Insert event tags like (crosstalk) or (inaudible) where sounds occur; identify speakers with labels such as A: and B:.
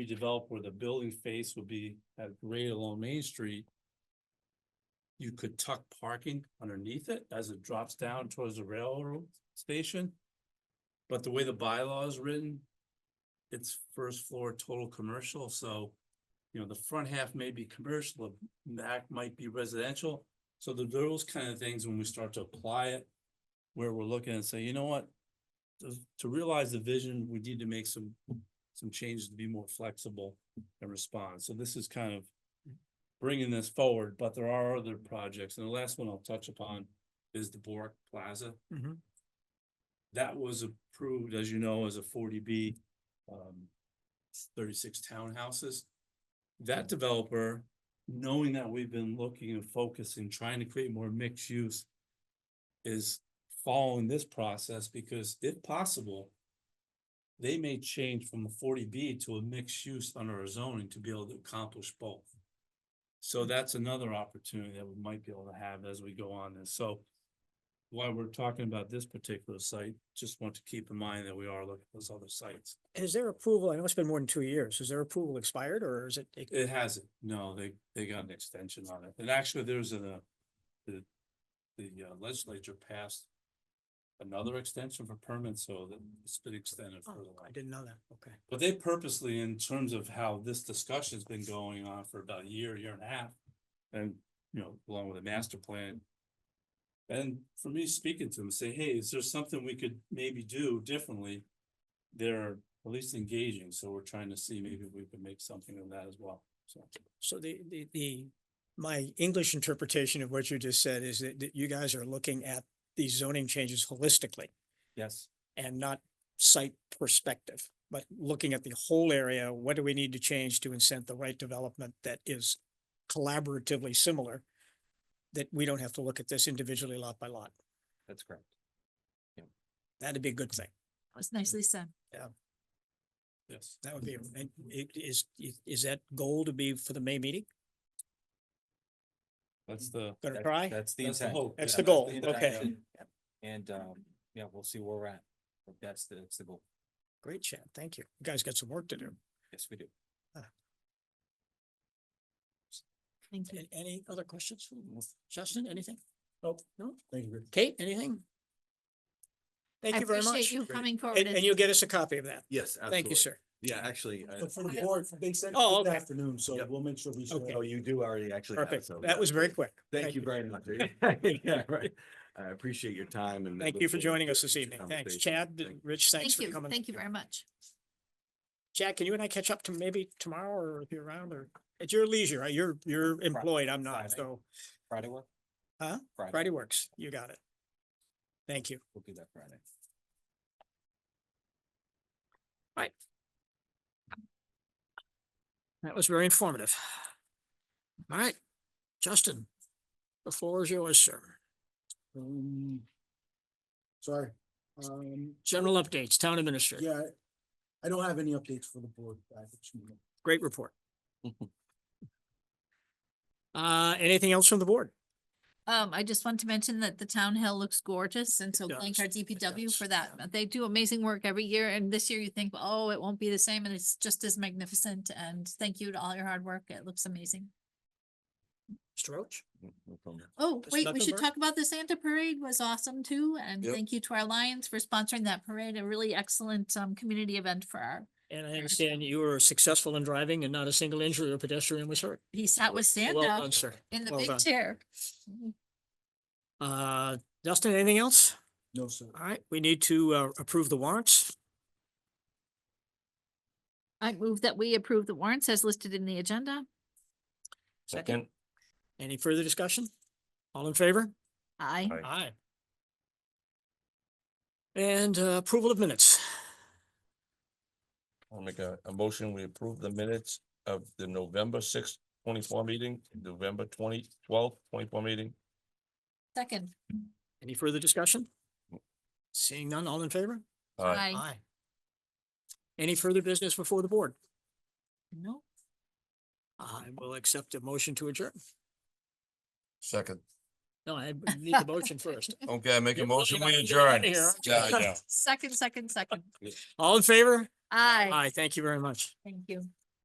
A: redevelop where the building face would be at grade along Main Street. You could tuck parking underneath it as it drops down towards the railroad station. But the way the bylaw is written, it's first floor total commercial, so. You know, the front half may be commercial, the back might be residential. So the those kind of things, when we start to apply it, where we're looking and say, you know what? To, to realize the vision, we need to make some, some changes to be more flexible and respond. So this is kind of bringing this forward, but there are other projects. And the last one I'll touch upon is the Bork Plaza.
B: Mhm.
A: That was approved, as you know, as a forty B, um, thirty-six townhouses. That developer, knowing that we've been looking and focusing, trying to create more mixed use is following this process because if possible, they may change from a forty B to a mixed use under our zoning to be able to accomplish both.
B: Hmm.
A: So that's another opportunity that we might be able to have as we go on this. So while we're talking about this particular site, just want to keep in mind that we are looking at those other sites.
B: Is their approval, I know it's been more than two years, is their approval expired or is it?
A: It hasn't, no, they, they got an extension on it, and actually, there's a, the, the uh, legislature passed another extension for permits, so that it's been extended for
B: Oh,
A: the
B: I didn't know that, okay.
A: But they purposely, in terms of how this discussion's been going on for about a year, year and a half, and, you know, along with a master plan. And for me, speaking to them, say, hey, is there something we could maybe do differently? They're at least engaging, so we're trying to see maybe if we can make something of that as well, so.
B: So the, the, the, my English interpretation of what you just said is that, that you guys are looking at these zoning changes holistically
A: Yes.
B: and not site perspective, but looking at the whole area, what do we need to change to incent the right development that is collaboratively similar? That we don't have to look at this individually lot by lot.
C: That's correct.
B: That'd be a good thing.
D: was nicely said.
A: Yes.
B: That would be, and it is, is that goal to be for the May meeting?
A: That's the.
B: Gonna
C: That-
B: try?
C: That's the
A: That's the
C: intent.
A: hope.
B: That's
C: Yeah,
B: the goal.
C: intention.
B: Okay.
C: And, um, yeah, we'll see where we're at. But That's the, that's the goal.
B: Great chat. Thank you. You guys got some work to do.
C: Yes, we do.
D: Thank you.
B: A- Any other questions? Justin, anything? Oh, no? Thank you. Kate, anything? Thank
D: I
B: you very
D: appreciate
B: much.
D: you coming forward.
B: And, and you'll get us a copy of that.
E: Yes, absolutely.
B: Thank you, sir.
E: Yeah, actually, uh, I-
F: But for the board, they sent
B: Oh,
F: it this
B: okay.
F: afternoon, so
E: Yep.
F: we'll make sure we. share
B: Okay.
F: it.
E: oh, you do already actually. have it,
B: Perfect.
E: so-
B: That was very quick.
E: Thank you very much. (laughs) Yeah, right. I appreciate your time and.
B: Thank
E: look
B: you for
E: forward
B: joining
E: to
B: us this evening.
E: the
B: Thanks,
E: conversation.
B: Chad,
E: Thank you.
B: Rich, thanks
D: Thank
B: for
D: you.
B: coming.
D: Thank you very much.
B: Jack, can you and I catch up to maybe tomorrow or if you're around or at your leisure? right? You're, you're employed. I'm not,
C: Friday.
B: so
C: Friday work?
B: Huh? Friday works. You got it. Thank you.
C: We'll do that Friday.
B: That was very informative. All right, Justin, the floor is yours, sir.
F: Um, Sorry, um,
B: General updates, town administrator,
F: yeah, I don't have any updates for the board. uh, this evening.
B: great report. Uh, anything else from the board?
D: Um, I just want to mention that the town hill looks gorgeous and so thank our
B: does, it
D: DPW for
B: does,
D: that.
B: yeah.
D: They do amazing work every year and this year you think, oh, it won't be the same and it's just as magnificent and thank you to all your hard work. It looks amazing.
B: Mr. Roach?
E: Mm, No problem.
D: Oh,
B: Mr.
D: wait, we should
B: Mecklenburg?
D: talk about the Santa Parade was awesome too. And
E: Yep.
D: thank you to our Lions for sponsoring that parade, a really excellent um community event for our.
B: And I understand you were successful in driving and not a single injury or pedestrian was hurt.
D: He sat with
B: Well
D: Santa
B: done, sir.
D: in the
B: well
D: big
B: done.
D: chair.
B: Uh, Justin, anything else?
F: No, sir.
B: All right, we need to uh, approve the warrants.
D: I move that we approve the warrants as listed in the agenda.
C: Second.
B: Any further discussion? All in favor?
D: Aye.
E: Aye.
B: Aye. And uh, approval of minutes.
G: I'll make a, a motion, we approve the minutes of the November sixth, twenty-four meeting, November twenty, twelfth, twenty-four meeting.
D: Second.
B: Any further discussion? Seeing none, all in favor?
G: Aye.
D: Aye.
B: Any further business before the board?
D: No.
B: I will accept a motion to adjourn.
G: Second.
B: No, I need the motion first.
G: (laughs) Okay, I make
B: You're
G: a motion,
B: looking
G: we
B: like you're
G: adjourn.
B: outta here, aren't you?
G: Yeah, yeah.
D: Second, second, second.
B: All in favor?
D: Aye.
B: Aye, thank you very much.
D: Thank you.